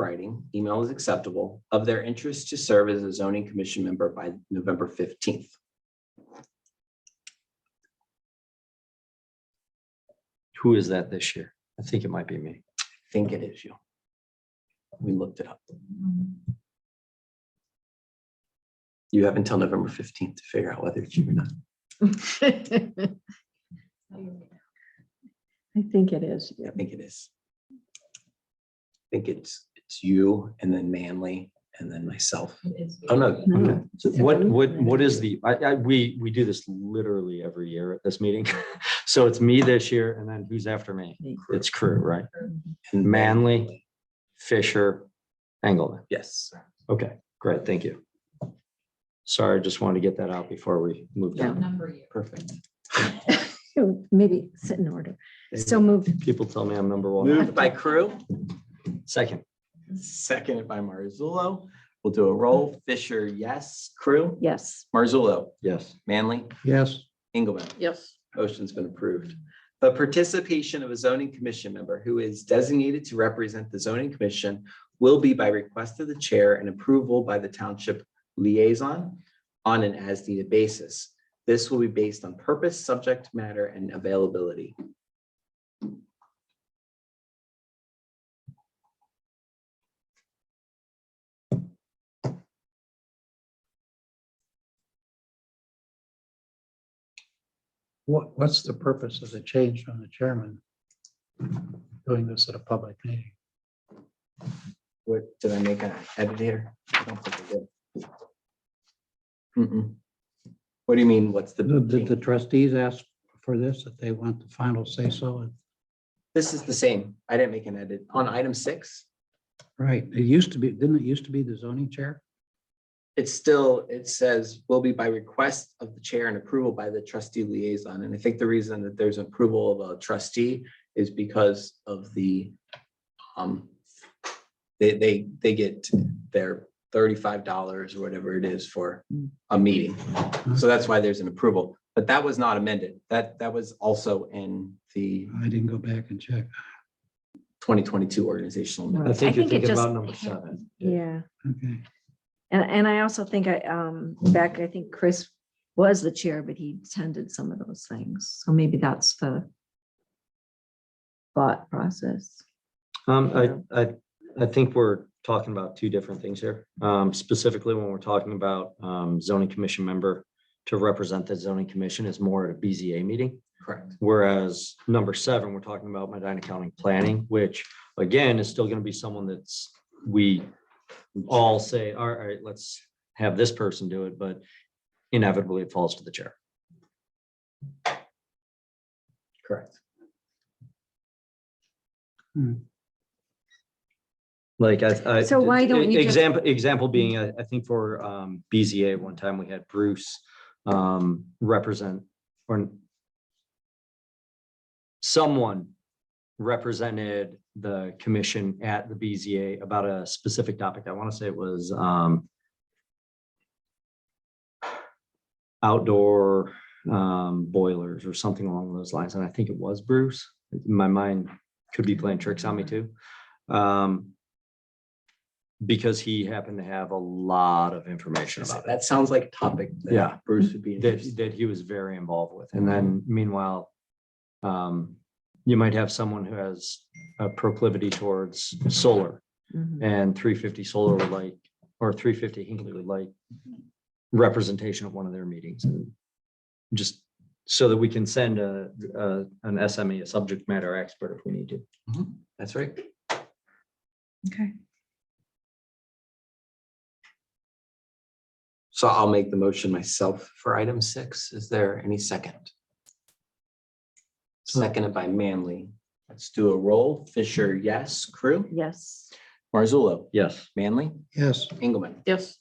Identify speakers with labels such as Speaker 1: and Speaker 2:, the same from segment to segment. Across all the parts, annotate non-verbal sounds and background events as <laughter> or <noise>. Speaker 1: writing, email is acceptable, of their interest to serve as a zoning commission member by November fifteenth.
Speaker 2: Who is that this year? I think it might be me.
Speaker 1: Think it is you. We looked it up. You have until November fifteenth to figure out whether it's you or not.
Speaker 3: <laughs> I think it is.
Speaker 1: I think it is. I think it's, it's you and then Manley and then myself. Oh, no.
Speaker 3: No.
Speaker 1: okay.
Speaker 2: So What, what, what is the, I, I, we, we do this literally every year at this meeting. <laughs> So it's me this year and then who's after me? It's crew, right?
Speaker 1: And
Speaker 2: Manley, Fisher, Engelman.
Speaker 1: Yes,
Speaker 2: Okay, great, thank you. Sorry, I just wanted to get that out before we moved on.
Speaker 4: Number you.
Speaker 1: perfect.
Speaker 3: Maybe sit in order. So moved.
Speaker 2: People tell me I'm number one.
Speaker 1: Moved by Crew,
Speaker 2: Second,
Speaker 1: seconded by Marzullo. We'll do a roll. Fisher, yes. Crew,
Speaker 3: Yes.
Speaker 1: Marzullo,
Speaker 2: yes.
Speaker 1: Manley,
Speaker 2: Yes.
Speaker 1: Engelmann.
Speaker 3: Yes.
Speaker 1: Motion's been approved. The participation of a zoning commission member who is designated to represent the zoning commission will be by request of the chair and approval by the township liaison on an as-needed basis. This will be based on purpose, subject matter, and availability.
Speaker 5: What, what's the purpose of the change on the chairman? Doing this at a public meeting?
Speaker 1: What, did I make an edit here? I don't think I did. Mm-mm. What do you mean, what's
Speaker 5: Did the
Speaker 1: the,
Speaker 5: trustees ask for this, that they want the final say so?
Speaker 1: this is the same. I didn't make an edit. On item six,
Speaker 5: Right, it used to be, didn't it used to be the zoning chair?
Speaker 1: it's still, it says will be by request of the chair and approval by the trustee liaison. And I think the reason that there's approval of a trustee is because of the, um, they, they, they get their thirty-five dollars or whatever it is for a meeting. So that's why there's an approval, but that was not amended. That, that was also in the
Speaker 5: I didn't go back and check.
Speaker 1: twenty twenty-two organizational.
Speaker 3: Right.
Speaker 1: amendment.
Speaker 2: I think you're
Speaker 3: it
Speaker 2: thinking
Speaker 3: just
Speaker 2: about number
Speaker 3: ha-
Speaker 2: seven.
Speaker 3: Yeah.
Speaker 5: Okay,
Speaker 3: And, and I also think I, um, back, I think Chris was the chair, but he attended some of those things. So maybe that's the thought process.
Speaker 2: Um, I, I, I think we're talking about two different things here. Um, specifically when we're talking about, um, zoning commission member to represent the zoning commission is more at a BZA meeting.
Speaker 1: Correct.
Speaker 2: Whereas number seven, we're talking about Medina County Planning, which again is still gonna be someone that's, we all say, all right, let's have this person do it, but inevitably it falls to the chair.
Speaker 1: Correct.
Speaker 2: Like I. I-
Speaker 3: So why don't you just-
Speaker 2: Example, example being, I, I think for um, BZA, one time we had Bruce um, represent or someone represented the commission at the BZA about a specific topic. I want to say it was um, outdoor um, boilers or something along those lines. And I think it was Bruce. My mind could be playing tricks on me too. Um, because he happened to have a lot of information about it
Speaker 1: That sounds like a topic. that
Speaker 2: Yeah.
Speaker 1: Bruce would be interested.
Speaker 2: that, that he was very involved with. And then meanwhile, um, you might have someone who has a proclivity towards solar
Speaker 3: Mhm.
Speaker 2: and three fifty solar would like, or three fifty Hinkley would like representation at one of their meetings and just so that we can send a, a, an SME, a subject matter expert if we need to.
Speaker 1: That's right.
Speaker 3: Okay.
Speaker 1: So I'll make the motion myself for item six. Is there any second? Seconded by Manley. Let's do a roll. Fisher, yes. Crew?
Speaker 3: Yes.
Speaker 1: Marzullo?
Speaker 2: Yes.
Speaker 1: Manley?
Speaker 5: yes,
Speaker 1: Engelmann?
Speaker 3: Yes.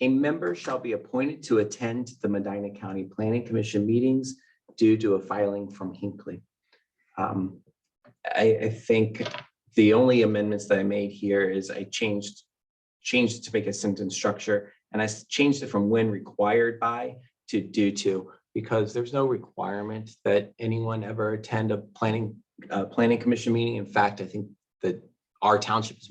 Speaker 1: A member shall be appointed to attend the Medina County Planning Commission meetings due to a filing from Hinkley. Um, I, I think the only amendments that I made here is I changed, changed it to make a sentence structure, and I s- changed it from when required by to due to, because there's no requirement that anyone ever attend a planning, uh, planning commission meeting. In fact, I think that our township is one.